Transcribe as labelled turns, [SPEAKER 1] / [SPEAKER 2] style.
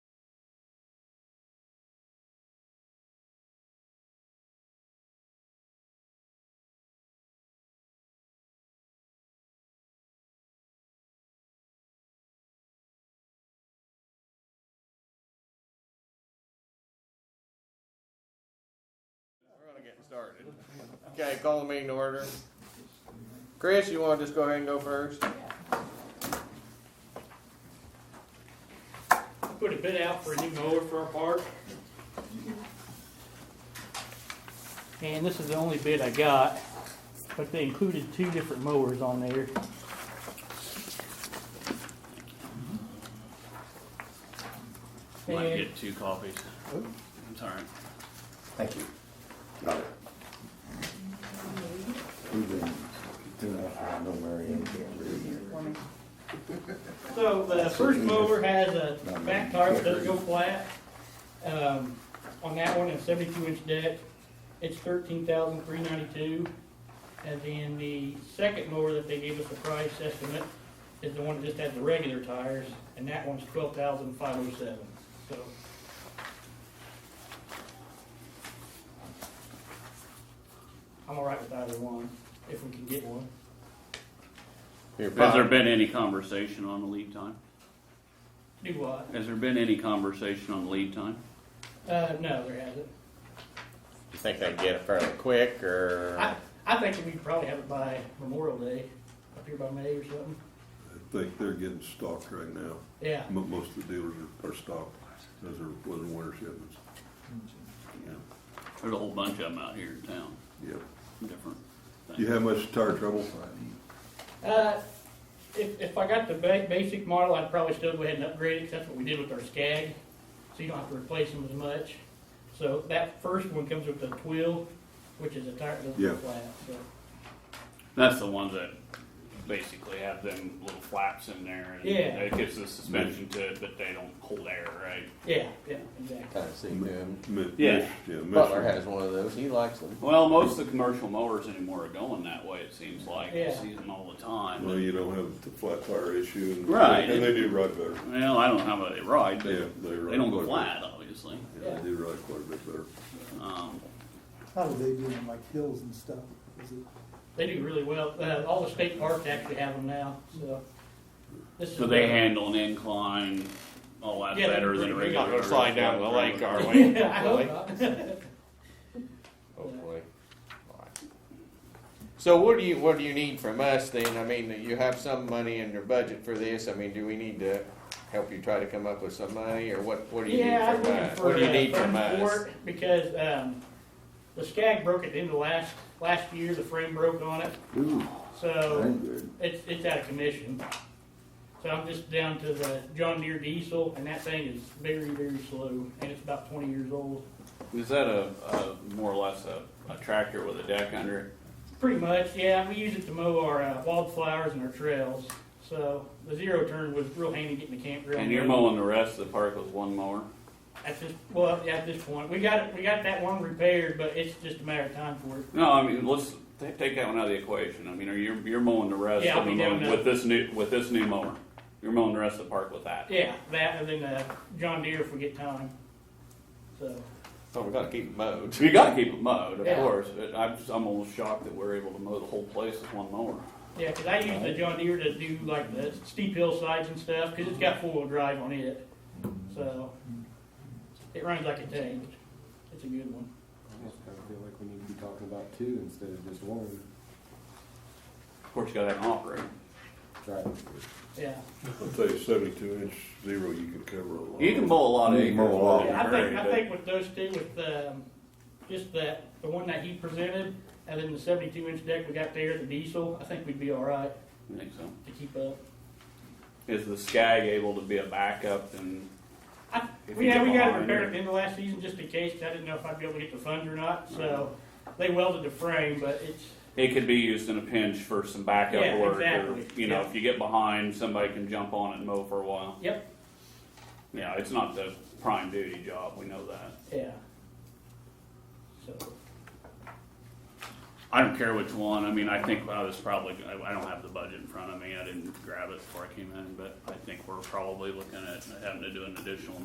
[SPEAKER 1] started. Okay, call the meeting to order. Chris, you wanna just go ahead and go first?
[SPEAKER 2] Put a bid out for a new mower for our park. And this is the only bid I got, but they included two different mowers on there.
[SPEAKER 3] Might
[SPEAKER 2] And-
[SPEAKER 3] get two coffees. It's all right.
[SPEAKER 4] Thank you. Got it. We've been doing that for uh, I know Marion can't read.
[SPEAKER 2] So the first mower has a back tire, it doesn't go flat. Um, on that one, it's seventy-two inch deck, it's thirteen thousand three ninety-two. And then the second mower that they gave us the price estimate is the one that just has the regular tires, and that one's twelve thousand five oh seven, so. I'm all right with either one, if we can get one.
[SPEAKER 1] Your
[SPEAKER 3] Has there
[SPEAKER 1] pop.
[SPEAKER 3] been any conversation on the lead time?
[SPEAKER 2] Do what?
[SPEAKER 3] Has there been any conversation on lead time?
[SPEAKER 2] Uh, no, there hasn't.
[SPEAKER 1] You think they can get it fairly quick,
[SPEAKER 2] I,
[SPEAKER 1] or?
[SPEAKER 2] I think we could probably have it by Memorial Day, up here by May or something.
[SPEAKER 5] I think they're getting stocked right now.
[SPEAKER 2] Yeah,
[SPEAKER 5] Mo- Most of the dealers are, are stocked. Those are, those are winter shipments. Yeah,
[SPEAKER 3] There's a whole bunch of them out here in town,
[SPEAKER 5] yeah.
[SPEAKER 3] different
[SPEAKER 5] Do you
[SPEAKER 3] things.
[SPEAKER 5] have much tire trouble?
[SPEAKER 2] uh, if, if I got the ba- basic model, I'd probably still go ahead and upgrade it, 'cause that's what we did with our Skag, so you don't have to replace them as much. So that first one comes with a twill, which is a tire that doesn't
[SPEAKER 5] Yeah.
[SPEAKER 2] go flat, so.
[SPEAKER 3] That's the ones that basically have them little flaps in there. and
[SPEAKER 2] Yeah.
[SPEAKER 3] It gives the suspension to it, but they don't hold air, right?
[SPEAKER 2] Yeah, yeah, exactly.
[SPEAKER 1] Kinda see them.
[SPEAKER 5] Mi-
[SPEAKER 3] Yeah.
[SPEAKER 5] Mich- Yeah. Mich-
[SPEAKER 1] Butler has one of those, he likes them.
[SPEAKER 3] Well, most of the commercial mowers anymore are going that way, it seems like. You
[SPEAKER 2] Yeah.
[SPEAKER 3] see them all the time.
[SPEAKER 5] Well, you don't have the flat tire issue and.
[SPEAKER 3] Right.
[SPEAKER 5] And they do ride better.
[SPEAKER 3] Well, I don't know how much they ride, but
[SPEAKER 5] Yeah,
[SPEAKER 3] they
[SPEAKER 5] they ride.
[SPEAKER 3] don't go
[SPEAKER 5] quite a bit.
[SPEAKER 3] flat, obviously.
[SPEAKER 5] Yeah, they do ride quite a bit better.
[SPEAKER 3] Um,
[SPEAKER 6] How do they do them, like hills and stuff? Is it,
[SPEAKER 2] They do really well, uh, all the state parks actually have them now, so. This is
[SPEAKER 3] So they
[SPEAKER 2] the-
[SPEAKER 3] handle an incline a lot
[SPEAKER 2] Yeah,
[SPEAKER 3] better than a
[SPEAKER 2] they're
[SPEAKER 3] regular.
[SPEAKER 2] not
[SPEAKER 7] gonna slide down the lake, are we?
[SPEAKER 2] Yeah, I hope not.
[SPEAKER 1] Hopefully. So what do you, what do you need from us then? I mean, you have some money in your budget for this, I mean, do we need to help you try to come up with some money, or what, what do you need
[SPEAKER 2] Yeah, I was
[SPEAKER 1] from
[SPEAKER 2] looking
[SPEAKER 1] us?
[SPEAKER 2] for
[SPEAKER 1] What do you
[SPEAKER 2] uh,
[SPEAKER 1] need from
[SPEAKER 2] funds for
[SPEAKER 1] us?
[SPEAKER 2] it Because, um, the skag broke at the end of last, last year, the frame broke on it,
[SPEAKER 5] Ooh,
[SPEAKER 2] so
[SPEAKER 5] good.
[SPEAKER 2] it's, it's out of commission. So I'm just down to the John Deere diesel, and that thing is very, very slow, and it's about twenty years old.
[SPEAKER 3] Is that a, a more or less a, a tractor with a deck under it?
[SPEAKER 2] Pretty much, yeah, we use it to mow our uh, wildflowers and our trails, so the zero turn was real handy getting the campground.
[SPEAKER 3] And you're
[SPEAKER 2] ready.
[SPEAKER 3] mowing the rest of the park with one mower?
[SPEAKER 2] At this, well, at this point, we got it, we got that one repaired, but it's just a matter of time for it.
[SPEAKER 3] No, I mean, let's ta- take that one out of the equation. I mean, are you, you're mowing the rest
[SPEAKER 2] Yeah, I'll
[SPEAKER 3] of the
[SPEAKER 2] be doing
[SPEAKER 3] mower
[SPEAKER 2] that.
[SPEAKER 3] with this new, with this new mower? You're mowing the rest of the park with that?
[SPEAKER 2] Yeah, that and then uh, John Deere if we get time. So
[SPEAKER 1] Oh, we gotta keep it mowed.
[SPEAKER 3] You gotta keep it mowed, of
[SPEAKER 2] Yeah.
[SPEAKER 3] course, but I'm just, I'm almost shocked that we're able to mow the whole place with one mower.
[SPEAKER 2] yeah, because I use the John Deere to do like the steep hillsides and stuff because it's got four wheel drive on it. So it runs like a tank. It's a good one.
[SPEAKER 8] That's kind of feel like we need to be talking about two instead of just one.
[SPEAKER 3] Of course, you gotta have an operator.
[SPEAKER 8] Right.
[SPEAKER 2] Yeah.
[SPEAKER 5] I'll tell you, seventy-two inch zero, you can cover a lot.
[SPEAKER 3] You can mow a lot of
[SPEAKER 5] You
[SPEAKER 3] acres.
[SPEAKER 5] can mow a lot.
[SPEAKER 3] with it,
[SPEAKER 2] yeah I
[SPEAKER 3] Oh, very
[SPEAKER 2] think I
[SPEAKER 3] good.
[SPEAKER 2] think with those two, with um, just that the one that he presented and then the 72 inch deck we got there, the diesel, I think we'd be all right
[SPEAKER 3] I think so.
[SPEAKER 2] to keep up.
[SPEAKER 3] Is the Skag able to be a backup and?
[SPEAKER 2] I,
[SPEAKER 3] If you
[SPEAKER 2] yeah,
[SPEAKER 3] get
[SPEAKER 2] we got it
[SPEAKER 3] behind
[SPEAKER 2] repaired
[SPEAKER 3] or-
[SPEAKER 2] at the end of last season just in case. 'cause I didn't know if I'd be able to get the funds or not. So they welded the frame, but it's
[SPEAKER 3] It could be used in a pinch for some backup
[SPEAKER 2] Yeah,
[SPEAKER 3] work, or
[SPEAKER 2] exactly.
[SPEAKER 3] you know,
[SPEAKER 2] Yeah.
[SPEAKER 3] if you get behind, somebody can jump on it and mow for a while.
[SPEAKER 2] yep,
[SPEAKER 3] Yeah, it's not the prime duty job. We know that.
[SPEAKER 2] yeah. So
[SPEAKER 3] I don't care which one. I mean, I think I was probably. I, I don't have the budget in front of me. I didn't grab it before I came in, but I think we're probably looking at having to do an additional